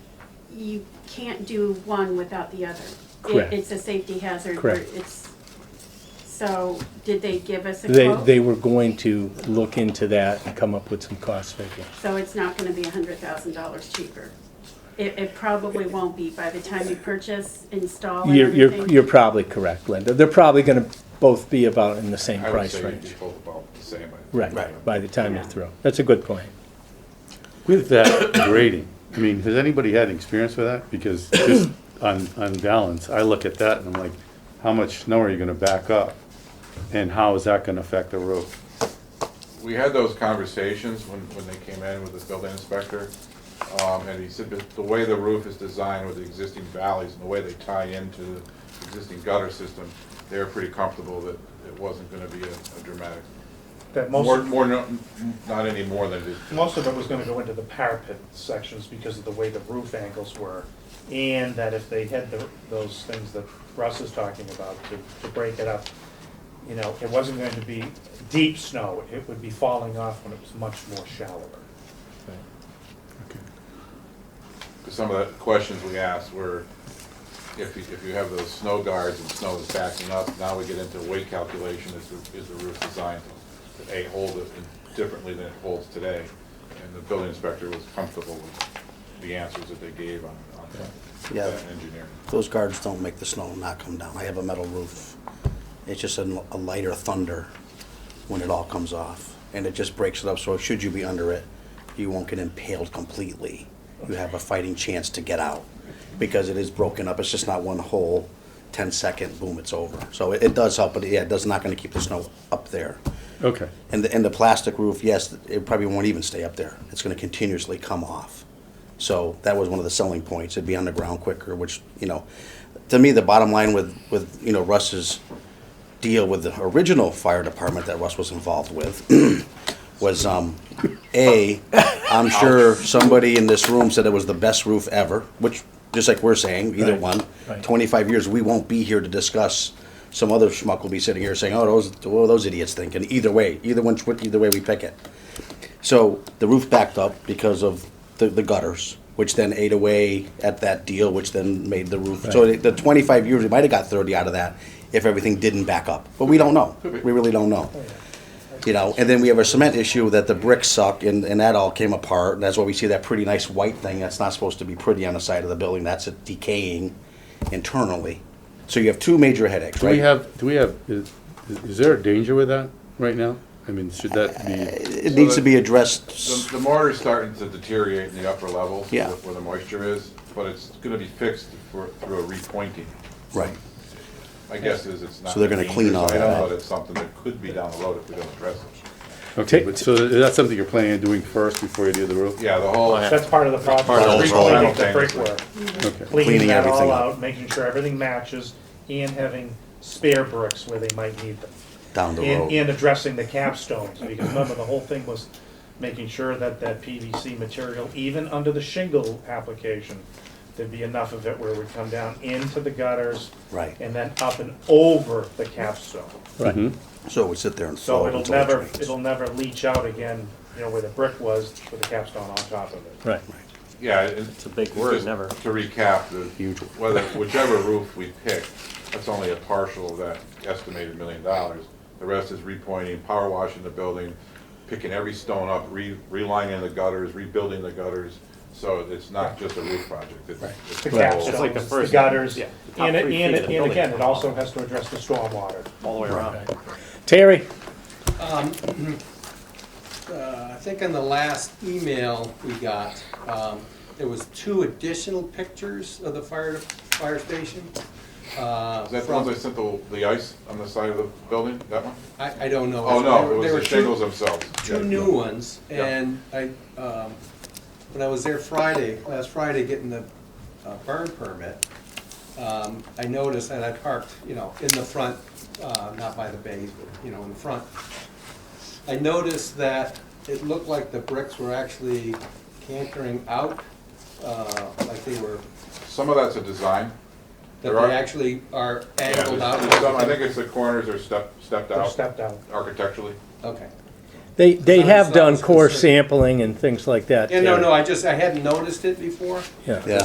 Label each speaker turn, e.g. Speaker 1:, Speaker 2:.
Speaker 1: you can't do one without the other. It-
Speaker 2: Correct.
Speaker 1: It's a safety hazard. or
Speaker 2: Correct.
Speaker 1: It's, so, did they give us a
Speaker 2: They,
Speaker 1: quote?
Speaker 2: they were going to look into that and come up with some cost figures.
Speaker 1: So it's not gonna be a hundred thousand dollars cheaper? It, it probably won't be by the time you purchase, install and
Speaker 2: You're, you're,
Speaker 1: everything.
Speaker 2: you're probably correct, Linda. They're probably gonna both be about in the same
Speaker 3: I would
Speaker 2: price
Speaker 3: say you'd be
Speaker 2: range.
Speaker 3: both about the same. I think.
Speaker 2: Right, by the time you're
Speaker 1: Yeah.
Speaker 2: through. That's a good point.
Speaker 4: With that grading, I mean, has anybody had experience with that? Because just on, on balance, I look at that and I'm like, how much snow are you gonna back up? And how is that gonna affect the road?
Speaker 3: We had those conversations when, when they came in with the building inspector, um, and he said that the way the roof is designed with the existing valleys and the way they tie into the existing gutter system, they were pretty comfortable that it wasn't gonna be a a dramatic,
Speaker 5: That
Speaker 3: more,
Speaker 5: most,
Speaker 3: more, no- not any more than it is.
Speaker 5: most of it was gonna go into the parapet sections because of the way the roof angles were. And that if they had the, those things that Russ is talking about to, to break it up, you know, it wasn't going to be deep snow, it would be falling off when it was much more shallower.
Speaker 3: Because some of the questions we asked were, if you, if you have those snow guards and snow is backing up, now we get into weight calculation, is the, is the roof designed to, A, hold it differently than it holds today? And the building inspector was comfortable with the answers that they gave on, on that-
Speaker 6: Yeah.
Speaker 3: that engineering.
Speaker 6: Those guards don't make the snow not come down. I have a metal roof. It's just a a lighter thunder when it all comes off. And it just breaks it up, so should you be under it, you won't get impaled completely. You have a fighting chance to get out because it is broken up. It's just not one whole 10-second, boom, it's over. So it it does help, but yeah, it does not going to keep the snow up there.
Speaker 4: Okay,
Speaker 6: And the, and the plastic roof, yes, it probably won't even stay up there. It's gonna continuously come off. So that was one of the selling points. It'd be on the ground quicker, which, you know, to me, the bottom line with, with, you know, Russ's deal with the original fire department that Russ was involved with was, um, A, I'm sure somebody in this room said it was the best roof ever, which, just like we're saying, either
Speaker 2: Right,
Speaker 6: one.
Speaker 2: right.
Speaker 6: Twenty-five years, we won't be here to discuss, some other schmuck will be sitting here saying, oh, those, what are those idiots thinking? Either way, either one, either way we pick it. So the roof backed up because of the, the gutters, which then ate away at that deal, which then made the roof. So
Speaker 2: Right.
Speaker 6: the 25 years, we might have got 30 out of that if everything didn't back up. But we don't know. We really don't know. You know, and then we have a cement issue that the bricks suck and, and that all came apart. And that's why we see that pretty nice white thing that's not supposed to be pretty on the side of the building. That's it decaying internally. So you have two major headaches,
Speaker 4: do
Speaker 6: right?
Speaker 4: we have, do we have, is, is there a danger with that right now? I mean, should that be,
Speaker 6: it needs to be
Speaker 3: The,
Speaker 6: addressed.
Speaker 3: the mortar's starting to deteriorate in the upper levels.
Speaker 6: Yeah.
Speaker 3: Where the moisture is, but it's gonna be fixed for, through a repointing.
Speaker 6: Right.
Speaker 3: My guess is it's not.
Speaker 6: So they're gonna
Speaker 3: a
Speaker 6: clean all
Speaker 3: dangerous item,
Speaker 6: that.
Speaker 3: But it's something that could be down the road if we don't address it.
Speaker 4: okay, but so is that something you're planning on doing first before you do the roof?
Speaker 3: Yeah, the whole.
Speaker 5: That's part of the project.
Speaker 3: part of the
Speaker 5: Recleaning
Speaker 3: overall
Speaker 5: the
Speaker 3: thing.
Speaker 5: brickwork.
Speaker 4: Okay.
Speaker 6: Cleaning
Speaker 5: Cleaning that
Speaker 6: everything
Speaker 5: all
Speaker 6: up.
Speaker 5: out, making sure everything matches, and having spare bricks where they might need them.
Speaker 6: Down the
Speaker 5: And,
Speaker 6: road.
Speaker 5: and addressing the capstones, because remember, the whole thing was making sure that that PVC material, even under the shingle application, there'd be enough of it where it would come down into the gutters.
Speaker 6: Right.
Speaker 5: And then up and over the capstone.
Speaker 2: Right.
Speaker 6: So it would sit there and
Speaker 5: So
Speaker 6: flow.
Speaker 5: it'll
Speaker 6: until it
Speaker 5: never,
Speaker 6: drains.
Speaker 5: it'll never leach out again, you know, where the brick was with the capstone on top of it.
Speaker 2: Right.
Speaker 3: Yeah. It's a big word, never. To recap, the,
Speaker 6: Huge.
Speaker 3: whether, whichever roof we pick, that's only a partial of that estimated million dollars. The rest is repointing, power washing the building, picking every stone up, re, relining the gutters, rebuilding the gutters. So it's not just a roof project, it's.
Speaker 5: The
Speaker 3: a whole-
Speaker 5: capstones, the gutters, and, it- and, it- and again, it also has to address the stormwater.
Speaker 2: Terry,
Speaker 7: uh, I think in the last email we got, um, there was two additional pictures of the fire, fire station. uh,
Speaker 3: Is that the
Speaker 7: from-
Speaker 3: ones I sent the, the ice on the side of the building, that one?
Speaker 7: I, I don't know.
Speaker 3: Oh,
Speaker 7: They
Speaker 3: no,
Speaker 7: were-
Speaker 3: it was
Speaker 7: they
Speaker 3: the
Speaker 7: were two-
Speaker 3: shingles themselves.
Speaker 7: two new ones, and I, um, when I was there Friday, last Friday, getting the uh, burn permit, um, I noticed, and I parked, you know, in the front, uh, not by the bays, but, you know, in the front. I noticed that it looked like the bricks were actually cantering out, uh, like they were,
Speaker 3: Some of that's a design.
Speaker 7: that
Speaker 3: There are-
Speaker 7: they actually are
Speaker 3: Yeah, there's-
Speaker 7: angled out.
Speaker 3: there's some- I think it's the corners are stepped, stepped
Speaker 5: They're
Speaker 3: out
Speaker 5: stepped out.
Speaker 3: architecturally.
Speaker 7: Okay.
Speaker 2: they, they
Speaker 7: Not as
Speaker 2: have
Speaker 7: loud
Speaker 2: done
Speaker 7: as
Speaker 2: core
Speaker 7: concern.
Speaker 2: sampling and things like that.
Speaker 7: Yeah, no,
Speaker 2: Terry.
Speaker 7: no, I just, I hadn't noticed it before.
Speaker 2: Yeah.
Speaker 6: Yeah.